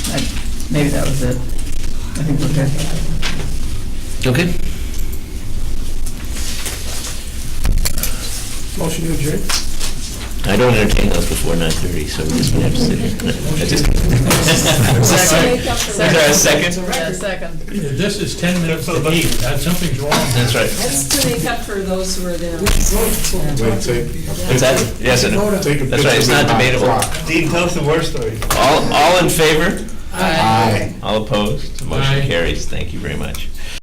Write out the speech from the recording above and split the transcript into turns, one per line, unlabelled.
Maybe that was it. I think we're good.
Okay.
Motion to adjourn.
I don't entertain those before 9:30, so we're just gonna have to sit here. I just- I'm so sorry. Is there a second?
Yeah, second.
This is 10 minutes to eight, That- something's wrong.
That's right.
That's to make up for those who are there.
Wait, take.
Is that, yes, and no?
Take a
That's right, it's
picture
not
of my
debatable.
clock.
Dean, tell us the war story.
All, all in favor?
Aye.
All opposed? Motion
Aye.
carries. Thank you very much.